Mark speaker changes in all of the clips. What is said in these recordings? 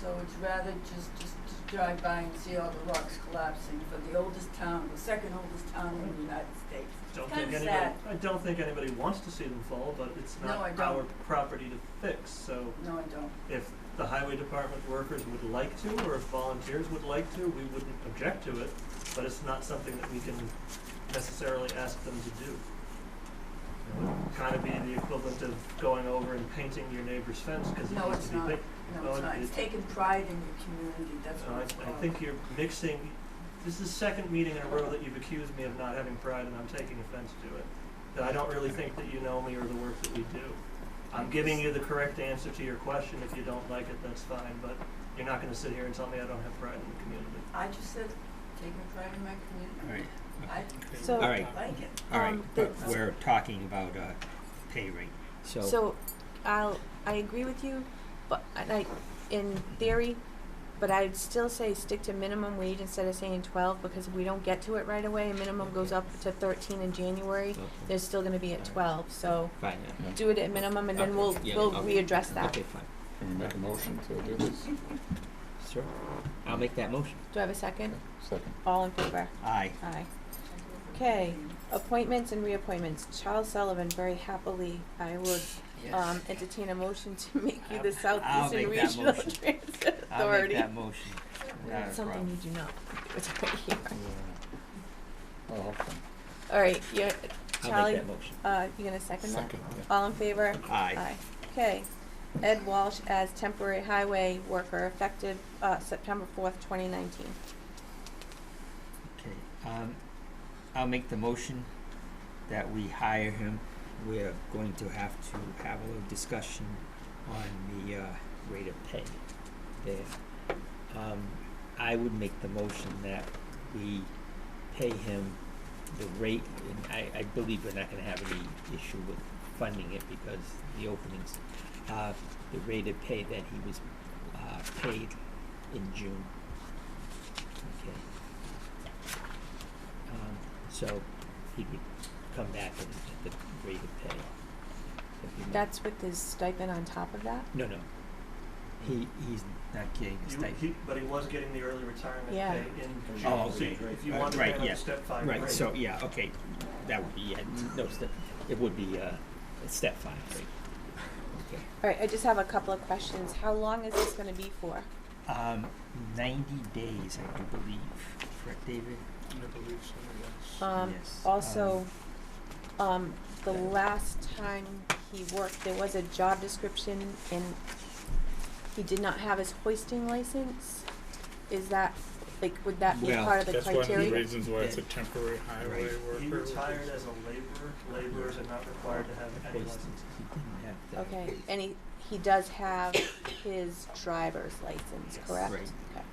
Speaker 1: So it's rather just, just to drive by and see all the rocks collapsing for the oldest town, the second oldest town in the United States.
Speaker 2: Don't
Speaker 1: Kinda
Speaker 2: think anybody,
Speaker 1: sad.
Speaker 2: I don't think anybody wants to see them fall, but it's
Speaker 1: No, I
Speaker 2: not
Speaker 1: don't.
Speaker 2: our property to fix, so
Speaker 1: No, I don't.
Speaker 2: if the highway department workers would like to, or if volunteers would like to, we wouldn't object to it, but it's not something that we can necessarily ask them to do. It would kind of be the equivalent of going over and painting your neighbor's fence, cause it
Speaker 1: No,
Speaker 2: needs
Speaker 1: it's
Speaker 2: to be
Speaker 1: not.
Speaker 2: painted.
Speaker 1: No, it's
Speaker 2: Oh,
Speaker 1: not. It's
Speaker 2: it-
Speaker 1: taking pride in your community, that's
Speaker 2: No,
Speaker 1: what it's
Speaker 2: I, I
Speaker 1: called.
Speaker 2: think you're mixing, this is the second meeting in a row that you've accused me of not having pride and I'm taking offense to it. That I don't really think that you know me or the work that we do. I'm giving you the correct answer to your question. If you don't like it, that's fine, but you're not gonna sit here and tell me I don't have pride in the community.
Speaker 1: I just said, taking pride in my community.
Speaker 3: Alright,
Speaker 4: So-
Speaker 3: All right.
Speaker 1: I like it.
Speaker 3: alright,
Speaker 4: Um,
Speaker 3: but
Speaker 4: but-
Speaker 3: we're talking about, uh, pay rate, so,
Speaker 4: So, I'll, I agree with you, but, and I, in theory, but I'd still say stick to minimum wage instead of saying twelve, because if we don't get to it right away, minimum goes up to thirteen in January, they're still gonna be at
Speaker 3: Alright.
Speaker 4: twelve, so
Speaker 3: fine, yeah.
Speaker 4: do it at minimum, and then
Speaker 3: Okay,
Speaker 4: we'll,
Speaker 3: yeah,
Speaker 4: we'll
Speaker 3: okay,
Speaker 4: readdress that.
Speaker 3: Okay, fine,
Speaker 5: Can we make a motion to do this?
Speaker 3: sure, I'll make that motion,
Speaker 4: Do I have a second?
Speaker 5: Second.
Speaker 4: All in favor?
Speaker 3: aye.
Speaker 4: Aye. Okay, appointments and reappointments. Charles Sullivan, very happily, I would, um, entertain a motion to make you the
Speaker 3: I'll- I'll
Speaker 4: Southeastern
Speaker 3: make that
Speaker 4: Regional
Speaker 3: motion.
Speaker 4: Transit Authority.
Speaker 3: I'll make that motion, not
Speaker 4: That's
Speaker 3: a
Speaker 4: something you
Speaker 3: problem.
Speaker 4: do not do. It's right here.
Speaker 5: Oh, okay.
Speaker 4: All right, you're,
Speaker 3: I'll
Speaker 4: Charlie,
Speaker 3: make that motion,
Speaker 4: uh, you gonna second that?
Speaker 5: Second, yeah.
Speaker 4: All in favor?
Speaker 3: aye,
Speaker 4: Okay. Ed Walsh as temporary highway worker effective, uh, September fourth, twenty nineteen.
Speaker 3: okay, um, I'll make the motion that we hire him. We're going to have to have a little discussion on the, uh, rate of pay there. Um, I would make the motion that we pay him the rate, and I, I believe we're not gonna have any issue with funding it because the openings, uh, the rate of pay that he was, uh, paid in June. Okay. Um, so he would come back at, at the rate of pay. if he-
Speaker 4: That's with his stipend on top of that?
Speaker 3: No, no. He, he's not getting a
Speaker 2: You-
Speaker 3: stipend.
Speaker 2: he- but he was getting the early retirement
Speaker 4: Yeah.
Speaker 2: pay in June.
Speaker 3: Oh,
Speaker 2: so
Speaker 3: okay.
Speaker 2: If you
Speaker 3: Right,
Speaker 2: want to
Speaker 3: right,
Speaker 2: pay him
Speaker 3: yeah.
Speaker 2: a step five rate.
Speaker 3: Right, so, yeah, okay, that would be, yeah, n- no, step, it would be, uh, step five, right?
Speaker 4: All right, I just have a couple of questions. How long is this gonna be for?
Speaker 3: Okay. Um, ninety days, I do believe, correct, David?
Speaker 4: Um,
Speaker 3: Yes,
Speaker 4: also,
Speaker 3: um,
Speaker 4: um, the
Speaker 3: yeah.
Speaker 4: last time he worked, there was a job description and he did not have his hoisting license. Is that, like, would that be
Speaker 3: Well,
Speaker 4: part of the
Speaker 6: That's one of the
Speaker 4: criteria?
Speaker 6: reasons why it's a temporary highway
Speaker 3: Right.
Speaker 6: worker.
Speaker 2: He retired as a laborer. Laborers are not required to have any
Speaker 3: Based-
Speaker 2: license.
Speaker 3: He didn't have that.
Speaker 4: Okay, and he, he does have his driver's license,
Speaker 2: Yes.
Speaker 4: correct?
Speaker 3: Right.
Speaker 4: Okay.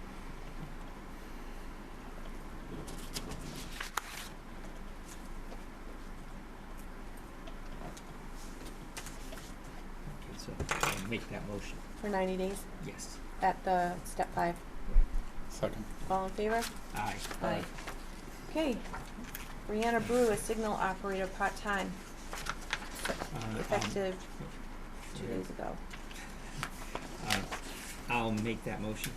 Speaker 3: Okay, so, I'll make that motion,
Speaker 4: For ninety days
Speaker 3: yes,
Speaker 4: at the step five.
Speaker 5: Second.
Speaker 4: All in favor?
Speaker 3: aye.
Speaker 4: Aye. Okay. Brianna Brew, a signal operator, part-time,
Speaker 3: Uh, um,
Speaker 4: effective two
Speaker 3: yeah,
Speaker 4: days ago.
Speaker 3: uh, I'll make that motion,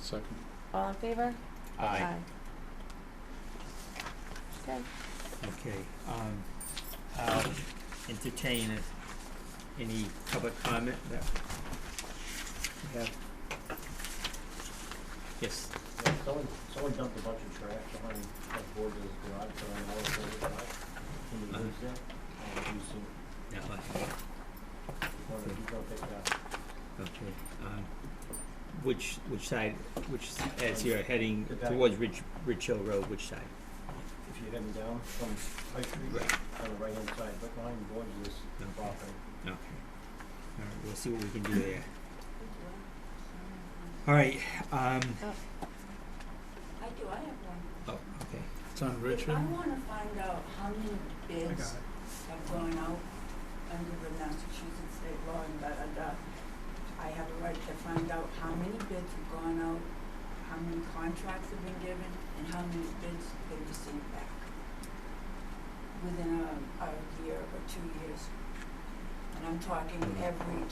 Speaker 5: Second.
Speaker 4: All in favor?
Speaker 3: aye.
Speaker 4: Okay,
Speaker 3: Okay, um, I'll entertain it. any public comment that we have? Yes,
Speaker 7: Yeah, someone, someone dumped a bunch of trash behind, on board of his garage, but I know it's over the garage. Can you
Speaker 3: Uh-huh.
Speaker 7: use that? Uh, do you see,
Speaker 3: no, I-
Speaker 7: you wanna, you gonna pick it up?
Speaker 3: okay, um, which, which side, which, s- as you're heading
Speaker 7: The back.
Speaker 3: towards Ridge, Ridge Hill Road, which side?
Speaker 7: If you're heading down from High Street, on the right-hand side, right behind the board of this
Speaker 3: Okay.
Speaker 7: property.
Speaker 3: Okay, alright, we'll see what we can do there. Alright, um,
Speaker 1: I do, I have one.
Speaker 3: oh, okay,
Speaker 6: It's on
Speaker 1: If I
Speaker 6: Richard.
Speaker 1: wanna find out how many
Speaker 6: I got
Speaker 1: bids
Speaker 6: it.
Speaker 1: have gone out under the Massachusetts state law and da-da-da, I have a right to find out how many bids have gone out, how many contracts have been given, and how many bids they received back within a, a year or two years. And I'm talking every